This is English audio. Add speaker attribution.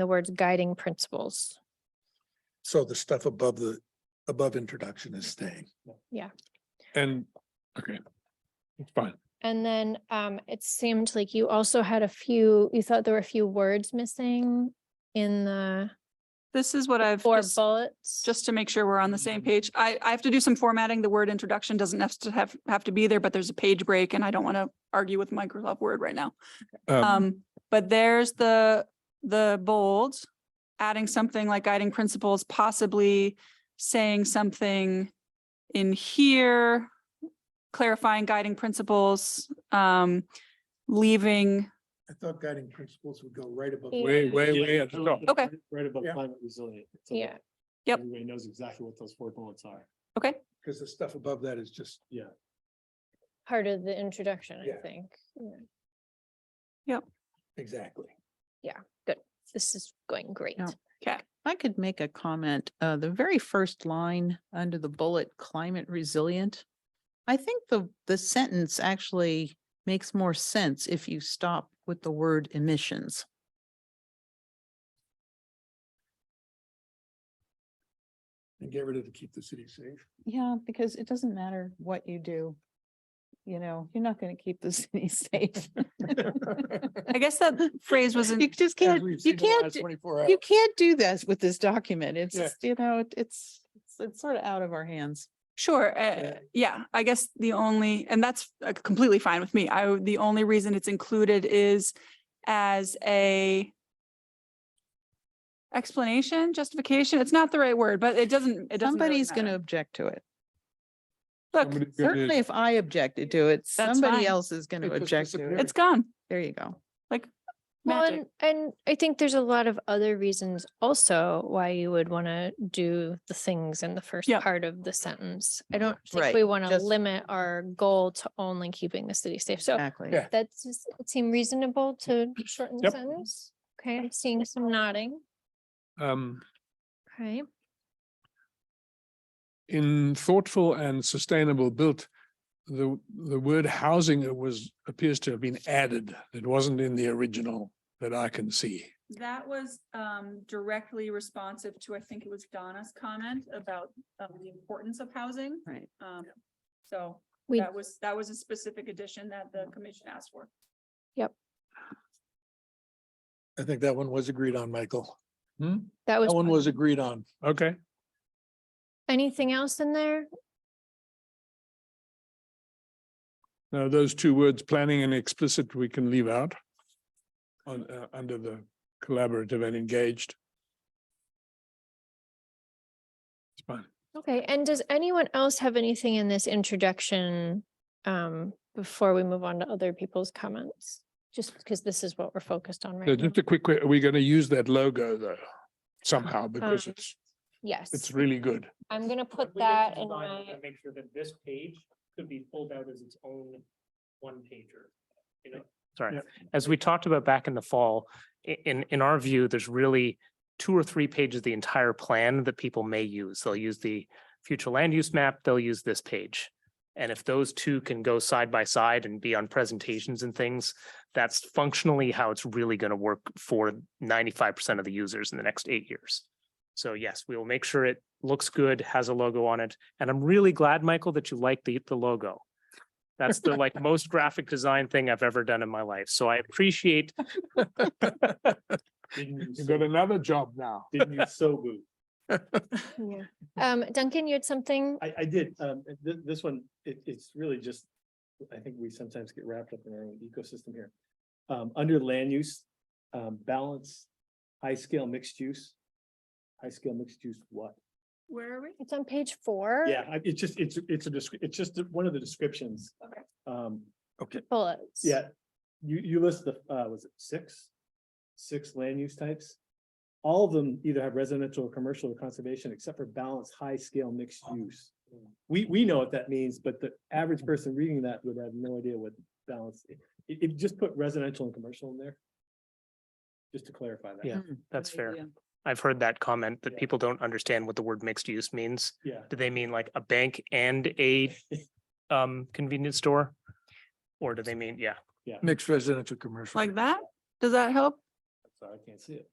Speaker 1: the words guiding principles.
Speaker 2: So the stuff above the, above introduction is staying.
Speaker 3: And, okay. It's fine.
Speaker 1: And then um, it seemed like you also had a few, you thought there were a few words missing in the
Speaker 4: This is what I've,
Speaker 1: four
Speaker 4: just-
Speaker 1: bullets.
Speaker 4: just to make sure we're on the same page. I, I have to do some formatting. The word introduction doesn't have to have, have to be there, but there's a page break and I don't want to argue with Microsoft Word right now.
Speaker 3: Um,
Speaker 4: Um, but there's the, the bold, adding something like guiding principles, possibly saying something in here, clarifying guiding principles, um, leaving,
Speaker 2: I thought guiding principles would go right above.
Speaker 1: Yeah.
Speaker 3: way, way, way at the top.
Speaker 4: Okay.
Speaker 5: Right above
Speaker 2: Yeah.
Speaker 5: climate resilient. so that
Speaker 1: Yeah.
Speaker 4: Yep.
Speaker 5: Everybody knows exactly what those four bullets are.
Speaker 4: okay,
Speaker 2: Because the stuff above that is just,
Speaker 1: Part of the introduction, I
Speaker 2: Yeah.
Speaker 1: think. Yeah.
Speaker 2: exactly.
Speaker 1: This is going great.
Speaker 6: Yeah. I could make a comment, uh, the very first line under the bullet climate resilient. I think the, the sentence actually makes more sense if you stop with the word emissions.
Speaker 2: And get rid of to keep the city safe.
Speaker 6: Yeah, because it doesn't matter what you do. You know, you're not going to keep the city safe.
Speaker 4: I guess that phrase was
Speaker 6: You
Speaker 4: in
Speaker 6: just
Speaker 2: As
Speaker 6: can't,
Speaker 2: we've
Speaker 6: you
Speaker 2: seen in the
Speaker 6: can't,
Speaker 2: last
Speaker 6: do-
Speaker 2: Twenty-four hours.
Speaker 6: you can't do this with this document. It's,
Speaker 2: Yeah.
Speaker 6: just, you know, it- it's, it's- it's sort of out of our hands.
Speaker 4: Sure, uh, yeah, I guess the only, and that's uh, completely fine with me. I, would- the only reason it's included is as a explanation, justification. It's not the right word, but it doesn't, it doesn't. really
Speaker 6: Somebody's going to
Speaker 4: matter.
Speaker 6: object to it.
Speaker 4: Look,
Speaker 3: Somebody's gonna-
Speaker 6: Certainly if I objected to it,
Speaker 4: That's fine.
Speaker 6: somebody else is going
Speaker 2: It
Speaker 6: to
Speaker 2: just
Speaker 6: object to
Speaker 2: disappears.
Speaker 6: it.
Speaker 4: it's gone.
Speaker 6: There you go.
Speaker 1: Well,
Speaker 4: Magic.
Speaker 1: and, and I think there's a lot of other reasons also why you would want to do the things in the first
Speaker 4: Yep.
Speaker 1: part of the sentence. I don't think
Speaker 6: Right,
Speaker 1: we want to
Speaker 6: just-
Speaker 1: limit our goal to only keeping the city safe. So
Speaker 6: Exactly.
Speaker 2: Yeah.
Speaker 1: that seem reasonable to shorten the
Speaker 3: Yep.
Speaker 1: sentence. Okay, I'm seeing some nodding.
Speaker 3: Um,
Speaker 1: Okay,
Speaker 3: in thoughtful and sustainable built, the, the word housing it was, appears to have been added. It wasn't in the original that I can see.
Speaker 4: That was um directly responsive to, I think it was Donna's comment about um, the importance of housing.
Speaker 6: Right.
Speaker 4: Um, so
Speaker 1: we,
Speaker 4: was, that was a specific addition that the commission asked for.
Speaker 2: I think that one was agreed on, Michael.
Speaker 1: that
Speaker 2: That one
Speaker 1: was,
Speaker 2: was agreed on.
Speaker 3: Okay,
Speaker 1: anything else in there?
Speaker 3: now those two words, planning and explicit, we can leave out on, uh, under the collaborative and engaged. It's fine.
Speaker 1: Okay, and does anyone else have anything in this introduction? Um, before we move on to other people's comments, just because this is what we're focused on
Speaker 3: So
Speaker 1: right now.
Speaker 3: Just a quick, que- are we going to use that logo though somehow because
Speaker 1: Um,
Speaker 3: it's, it's
Speaker 1: Yes,
Speaker 3: really good.
Speaker 1: I'm gonna put
Speaker 7: We need to
Speaker 1: that in
Speaker 7: design
Speaker 1: my,
Speaker 7: and Make sure that this page could be pulled out as its own one pager, you know?
Speaker 2: Yeah.
Speaker 7: Sorry, as we talked about back in the fall, i- in, in our view, there's really two or three pages of the entire plan that people may use. They'll use the future land use map, they'll use this page. And if those two can go side by side and be on presentations and things, that's functionally how it's really going to work for ninety-five percent of the users in the next eight years. So yes, we will make sure it looks good, has a logo on it. And I'm really glad, Michael, that you like the, the logo. That's the like most graphic design thing I've ever done in my life. So I appreciate,
Speaker 5: Didn't
Speaker 3: You've
Speaker 5: use so-
Speaker 3: got another job now.
Speaker 5: didn't use Sobu.
Speaker 1: Yeah. um, Duncan, you had something?
Speaker 5: I, I did, um, this, this one, it, it's really just, I think we sometimes get wrapped up in our own ecosystem here. Um, under land use, um, balance, high scale mixed use. High scale mixed use what?
Speaker 4: Where are we?
Speaker 1: It's on page four.
Speaker 5: Yeah, I- it's just, it's, it's a, descri- it's just one of the descriptions.
Speaker 4: Okay.
Speaker 5: Um,
Speaker 1: Bullets.
Speaker 5: Yeah, you, you list the, uh, was it six? Six land use types. All of them either have residential, or commercial, or conservation, except for balanced, high-scale mixed use. We, we know what that means, but the average person reading that would have no idea what balance, if, if you just put residential and commercial in there. Just to clarify that.
Speaker 7: Yeah. that's
Speaker 6: Good
Speaker 7: fair.
Speaker 6: Hmm, idea.
Speaker 7: I've heard that comment that
Speaker 5: Yeah.
Speaker 7: people don't understand what the word mixed use means.
Speaker 5: Yeah,
Speaker 7: Do they mean like a bank and a um convenience store? Or do they mean, yeah,
Speaker 2: Mixed residential commercial.
Speaker 4: Like that? Does that help?
Speaker 5: sorry, I can't see it.